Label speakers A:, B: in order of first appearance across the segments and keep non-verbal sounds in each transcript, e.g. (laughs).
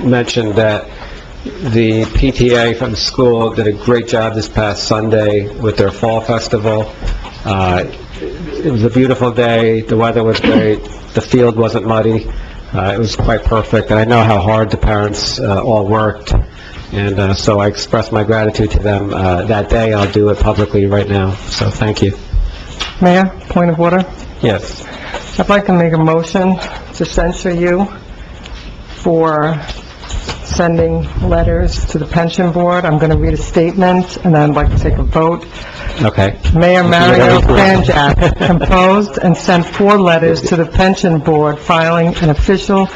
A: mention that the PTA from the school did a great job this past Sunday with their fall festival. Uh, It was a beautiful day, the weather was great, the field wasn't muddy, Uh, it was quite perfect, and I know how hard the parents uh, all worked, and uh, so I express my gratitude to them uh, that day, I'll do it publicly right now, so thank you.
B: Mayor, point of order.
A: Yes.
B: I'd like to make a motion to censure you for sending letters to the pension board. I'm going to read a statement, and then I'd like to take a vote.
A: Okay.
B: Mayor Mario
A: Mayor.
B: Kranjak composed and sent four letters to the pension board filing an official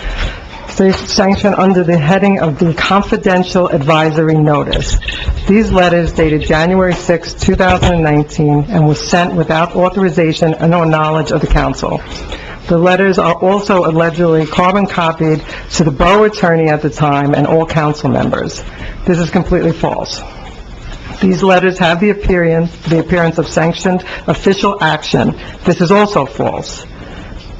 B: sanction under the heading of the confidential advisory notice. These letters dated January 6, 2019, and were sent without authorization and or knowledge of the council. The letters are also allegedly carbon copied to the borough attorney at the time and all council members. This is completely false. These letters have the appearance, the appearance of sanctioned official action. This is also false.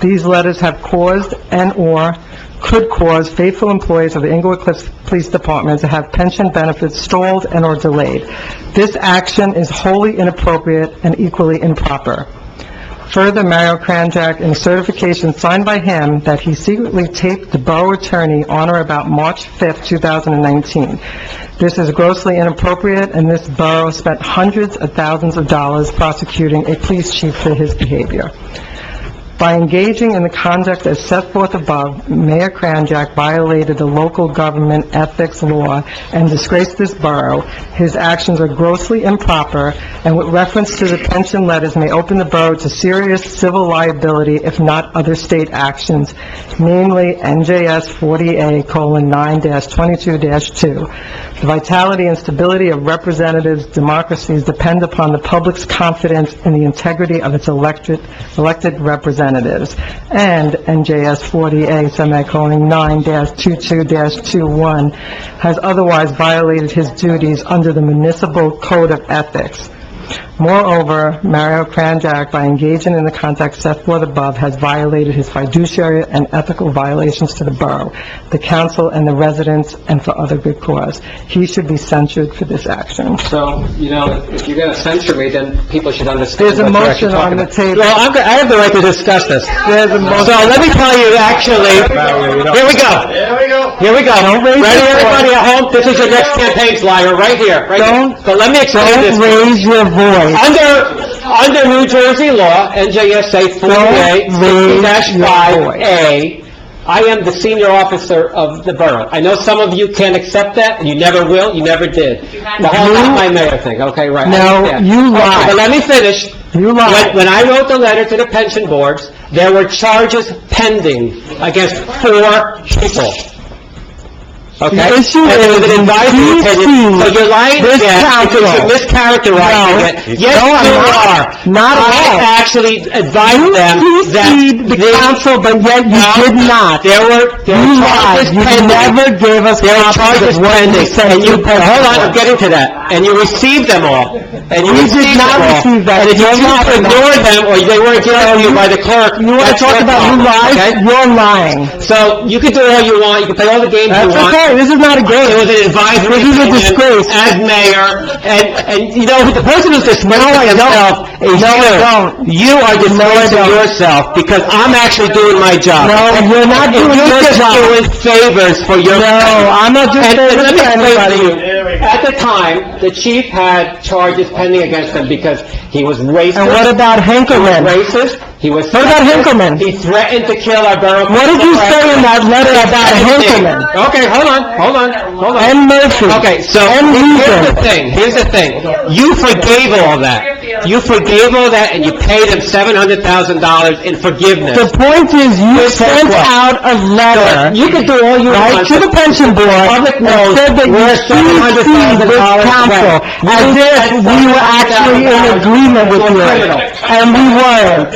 B: These letters have caused and/or could cause faithful employees of the Englewood Cliffs Police Department to have pension benefits stalled and/or delayed. This action is wholly inappropriate and equally improper. Further, Mario Kranjak, in a certification signed by him that he secretly taped the borough attorney on or about March 5th, 2019. This is grossly inappropriate, and this borough spent hundreds of thousands of dollars prosecuting a police chief for his behavior. By engaging in the conduct as set forth above, Mayor Kranjak violated the local government ethics law and disgraced this borough. His actions are grossly improper, and with reference to the pension letters may open the borough to serious civil liability if not other state actions, namely NJS 40A:9-22-2. The vitality and stability of representatives' democracies depend upon the public's confidence in the integrity of its elected, elected representatives. And NJS 40A, semicolon, 9-22-21, has otherwise violated his duties under the municipal code of ethics. Moreover, Mario Kranjak, by engaging in the conduct set forth above, has violated his fiduciary and ethical violations to the borough, the council, and the residents, and for other good cause. He should be censured for this action.
A: So, you know, if you're going to censure me, then people should understand
B: There's a
A: what you're actually
B: motion
A: talking
B: on the
A: about.
B: table.
C: Well, I'm, go- I have the right to discuss this. So
B: There's a motion.
C: let me tell you, actually, here we go.
D: There we go.
C: Here we go. Ready, everybody at home? This is your next campaign flyer, right here, right here.
B: Don't-
C: So let me explain this.
B: Don't raise your voice.
C: Under, under New Jersey law, NJSA
B: Don't raise your
C: 48-5A, I am the senior officer of the borough. I know some of you can't accept that, and you never will, you never did. The whole not my mayor thing, okay, right. I
B: No,
C: understand.
B: you
C: Okay,
B: lied.
C: But let me finish.
B: You
C: When,
B: lied.
C: when I wrote the letter to the pension boards, there were charges pending against four people. Okay?
B: The issue
C: And it was
B: is,
C: an advisory
B: you
C: opinion. So you're lying
B: this
C: again, because you're
B: council- No.
C: mischaracterizing it. Yes,
B: No, I'm
C: you
B: not.
C: are.
B: Not at all.
C: I actually advised them
B: You
C: that...
B: preceded the
C: they-
B: council, but yet you
C: No,
B: did not.
C: There were, there were
B: You lied.
C: charges
B: You
C: pending.
B: never gave us
C: There were
B: copies
C: charges
B: of what you
C: pending,
B: said.
C: and you,
B: you paid
C: hold on,
B: for.
C: I'm getting to that. And you received them all. And
B: You
C: you
B: did
C: received them
B: not
C: all.
B: receive that.
C: And if you
B: You're
C: choose to
B: lying.
C: ignore them, or they weren't given to you by the clerk,
B: You want to
C: that's
B: talk
C: your
B: about who
C: problem,
B: lies?
C: okay?
B: You're lying.
C: So you can do all you want, you can play all the games you
B: That's
C: want.
B: okay, this is not a
C: It
B: game.
C: was
B: (laughs)
C: an advisory
B: This is a
C: opinion
B: disgrace.
C: as mayor, and, and, you know, the person who's disgracing himself is
B: No, I
C: you.
B: don't.
C: You are disgracing
B: don't.
C: yourself, because I'm actually doing my job.
B: No, you're not
C: And
B: doing your job.
C: You're just doing favors for your...
B: No, I'm not doing
C: And- and
B: favors
C: let me
B: for
C: explain to
B: anybody.
C: you.
D: There we go.
C: At the time, the chief had charges pending against him because he was racist.
B: And what about Hankerman?
C: Racist, he was...
B: What about
C: sexist,
B: Hinkleman?
C: He threatened to kill our borough...
B: What did you say in that letter
C: (laughs)
B: about Hankerman?
C: Okay, hold on, hold on, hold on.
B: And Murphy?
C: Okay, so,
B: And
C: here's the
B: Hoover.
C: thing, here's the thing. You forgave all that. You forgave all that, and you paid him $700,000 in
B: The
C: forgiveness.
B: point is, you sent
C: what?
B: out a letter,
C: You can do all you
B: right,
C: want.
B: to the pension board, and
C: Public knows
B: said that you
C: we're
B: CC'd
C: $700,000
B: this council,
C: away. You
B: as if
C: sent
B: we were actually in
C: $700,000
B: agreement with
C: to a
B: you.
C: criminal.
B: And we weren't.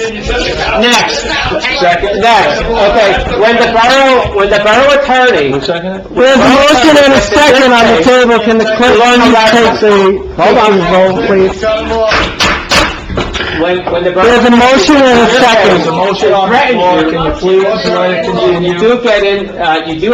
C: Next. Next, okay. When the borough, when the borough attorney...
B: There's a motion and a second on the table, can the clerk
C: Hold on.
B: please take the,
C: Hold on.
B: take the vote, please?
C: When, when the borough...
B: There's a motion and a second.
C: There's a motion on the floor, can you please, you do get in, uh, you do